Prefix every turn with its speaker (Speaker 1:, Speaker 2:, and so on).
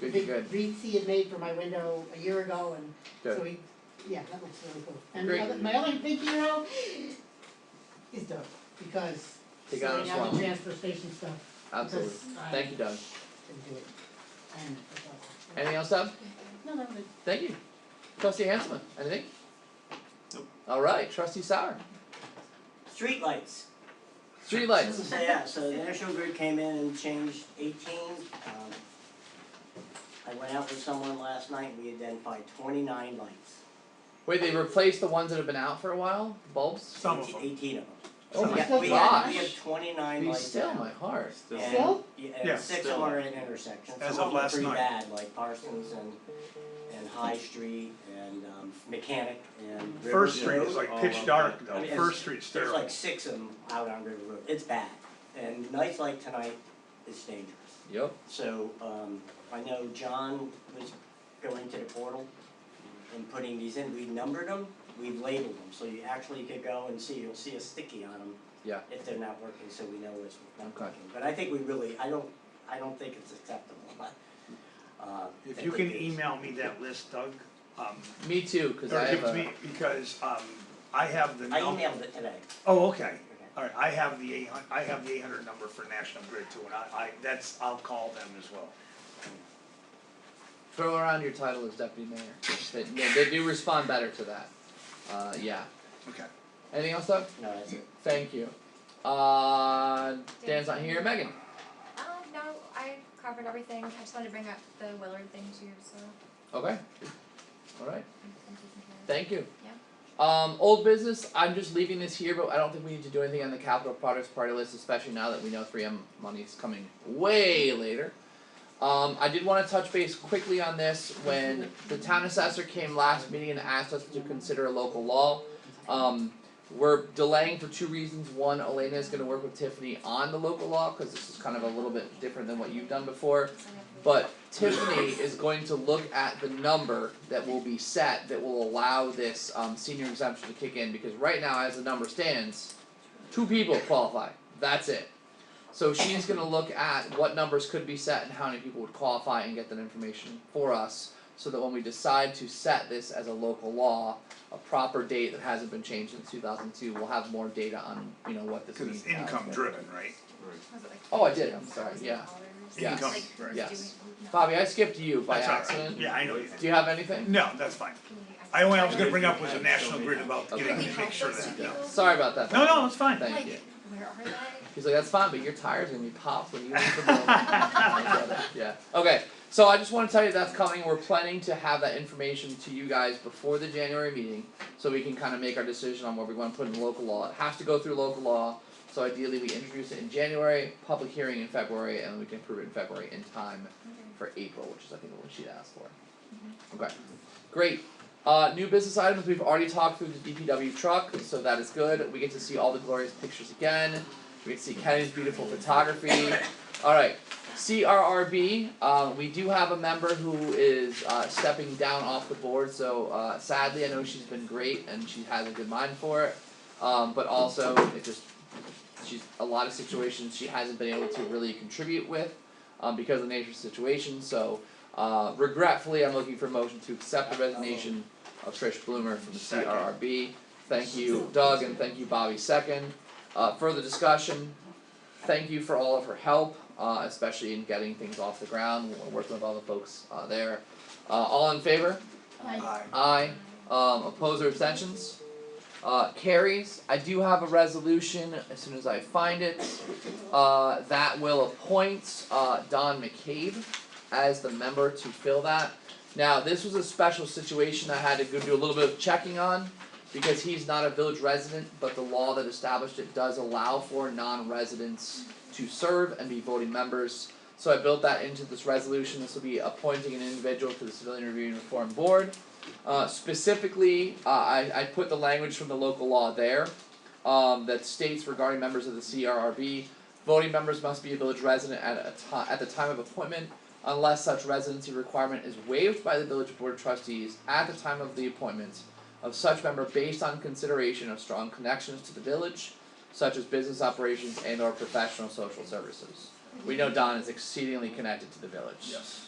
Speaker 1: Good,
Speaker 2: big
Speaker 1: good.
Speaker 2: wreaths he had made for my window a year ago and so
Speaker 1: Good.
Speaker 2: he, yeah, that looks really cool. And
Speaker 1: Great.
Speaker 2: the other, my other big hero is Doug, because
Speaker 1: Take out
Speaker 2: sorting
Speaker 1: a
Speaker 2: out the
Speaker 1: swamp.
Speaker 2: transfer station stuff,
Speaker 1: Absolutely.
Speaker 2: because I
Speaker 1: Thank you, Doug.
Speaker 2: can do it. And it's awesome.
Speaker 1: Anything else, Doug?
Speaker 2: No, that was it.
Speaker 1: Thank you. Trustee Hanselman, anything?
Speaker 3: Nope.
Speaker 1: Alright, trustee Sauer.
Speaker 3: Streetlights.
Speaker 1: Streetlights.
Speaker 3: So yeah, so the National Grid came in and changed eighteen, um. I went out with someone last night, we identified twenty-nine lights,
Speaker 1: Wait, they replaced the ones that have been out for a while? Bulbs?
Speaker 4: Some of
Speaker 3: Eighteen-
Speaker 4: them.
Speaker 3: eighteen of them.
Speaker 1: Oh
Speaker 2: Some
Speaker 1: my
Speaker 2: of them.
Speaker 3: Yeah, we have,
Speaker 1: gosh.
Speaker 3: we have twenty-nine
Speaker 1: Be
Speaker 3: lights
Speaker 1: still,
Speaker 3: now.
Speaker 1: my heart.
Speaker 4: Still.
Speaker 3: And-
Speaker 2: Still?
Speaker 3: Yeah,
Speaker 4: Yeah,
Speaker 3: and six of
Speaker 4: still.
Speaker 3: them are at intersections,
Speaker 4: As of
Speaker 3: some of them are
Speaker 4: last
Speaker 3: pretty
Speaker 4: night.
Speaker 3: bad, like Parsons and, and High Street and, um, Mechanic and River
Speaker 4: First Street
Speaker 3: Road.
Speaker 4: is like
Speaker 5: all
Speaker 4: pitch
Speaker 5: up
Speaker 4: dark
Speaker 3: I
Speaker 5: there.
Speaker 4: though,
Speaker 3: mean, it's-
Speaker 4: First Street's
Speaker 3: There's
Speaker 4: terrible.
Speaker 3: like six of them out on River Road, it's bad, and nights like tonight is dangerous.
Speaker 1: Yep.
Speaker 3: So, um, I know John was going to the portal and putting these in, we numbered them, we labeled them, so you actually could go and see, you'll see a sticky on them.
Speaker 1: Yeah.
Speaker 3: If they're not working, so we know it's not
Speaker 1: Okay.
Speaker 3: working, but I think we really, I don't, I don't think it's acceptable, but, uh.
Speaker 4: If
Speaker 3: I
Speaker 4: you
Speaker 3: think
Speaker 4: can
Speaker 3: it's-
Speaker 4: email me that list, Doug, um,
Speaker 1: Me too, cause
Speaker 4: or
Speaker 1: I
Speaker 4: give
Speaker 1: have
Speaker 4: it to me,
Speaker 1: a,
Speaker 4: because, um, I have the
Speaker 3: I
Speaker 4: num-
Speaker 3: emailed it today,
Speaker 4: oh, okay.
Speaker 3: Okay.
Speaker 4: Alright, I have the eight hun- I have the eight hundred number for National Grid too, and I, I, that's, I'll call them as well.
Speaker 1: throw around your title as deputy mayor. They, they- they do respond better to that. Uh, yeah.
Speaker 4: Okay.
Speaker 1: Anything else, Doug?
Speaker 3: no, that's it.
Speaker 1: Thank you. Uh, Dan's not here. Megan?
Speaker 6: Um, no, I covered everything. I just wanted to bring up the Willard thing too, so
Speaker 1: Okay. Alright.
Speaker 6: I'm I'm taking care of it.
Speaker 1: Thank you. Um, old business, I'm just leaving this here, but I don't think we need to do anything on the capital products party list, especially now that we know three M money is coming way later. Um, I did wanna touch base quickly on this, when the town assessor came last meeting and asked us to consider a local law. Um, we're delaying for two reasons, one, Elena is gonna work with Tiffany on the local law, cause this is kind of a little bit different than what you've done before.
Speaker 6: So I have to-
Speaker 1: But Tiffany is going to look at the number that will be set that will allow this um senior exemption to kick in because right now, as the number stands, two people qualify. That's it. So she's gonna look at what numbers could be set and how many people would qualify and get that information for us. So that when we decide to set this as a local law, a proper date that hasn't been changed since two thousand two, we'll have more data on, you know, what this
Speaker 4: Cause
Speaker 1: means.
Speaker 4: it's income driven, right?
Speaker 6: Was it like
Speaker 1: Oh, I did. I'm
Speaker 6: $15,000
Speaker 1: sorry. Yeah.
Speaker 6: dollars?
Speaker 1: Yes.
Speaker 4: Income,
Speaker 6: Like, who's
Speaker 1: yes.
Speaker 6: doing- no.
Speaker 1: Bobby, I skipped you by
Speaker 4: That's all right.
Speaker 1: accident.
Speaker 4: Yeah, I know you did.
Speaker 1: Do you have anything?
Speaker 4: No, that's fine.
Speaker 6: Can we-
Speaker 4: I only, I
Speaker 6: don't
Speaker 4: was gonna
Speaker 6: know.
Speaker 4: bring up was the National Grid about
Speaker 1: Okay.
Speaker 4: getting,
Speaker 6: Can we
Speaker 4: to make
Speaker 6: help
Speaker 4: sure
Speaker 6: those
Speaker 4: that,
Speaker 6: two
Speaker 4: no.
Speaker 6: people?
Speaker 1: Sorry about that.
Speaker 4: No, no, it's fine.
Speaker 1: Thank
Speaker 6: Like,
Speaker 1: you. Uh,
Speaker 6: where are they?
Speaker 1: He's like, that's fine, but your tires are gonna be popped when you leave the building. I get it. Yeah, okay, so I just wanna tell you that's coming, we're planning to have that information to you guys before the January meeting. So we can kinda make our decision on what we wanna put in local law, it has to go through local law, so ideally we introduce it in January, public hearing in February, and we can approve it in February in time for April, which is I think what she'd asked for. Okay, great. Uh, new business items, we've already talked through the DPW truck, so that is good. We get to see all the glorious pictures again. We get to see Kenny's beautiful photography. Alright, CRRB, uh, we do have a member who is uh, stepping down off the board, so uh, sadly, I know she's been great and she has a good mind for it. Um, but also, it just, she's, a lot of situations she hasn't been able to really contribute with um, because of the nature of the situation. So uh, regretfully, I'm looking for a motion to accept the resignation of Trish Bloomer from the
Speaker 4: Second.
Speaker 1: CRRB. Thank you, Doug, and thank you, Bobby. Second. Uh, further discussion. Thank you for all of her help, uh, especially in getting things off the ground. We're working with all the folks uh, there. Uh, all in favor?
Speaker 4: Aye.
Speaker 1: Aye. Um, oppose or abstentions? Uh, carries. I do have a resolution as soon as I find it. Uh, that will appoint, uh, Don McCabe as the member to fill that. Now, this was a special situation I had to go do a little bit of checking on because he's not a village resident, but the law that established it does allow for non-residents to serve and be voting members. So I built that into this resolution. This will be appointing an individual to the Civilian Review and Reform Board. Uh, specifically, uh, I, I put the language from the local law there um, that states regarding members of the CRRB, voting members must be a village resident at a ti- at the time of appointment unless such residency requirement is waived by the village board of trustees at the time of the appointment of such member based on consideration of strong connections to the village, such as business operations and or professional social services. We know Don is exceedingly connected to the village.
Speaker 4: Yes.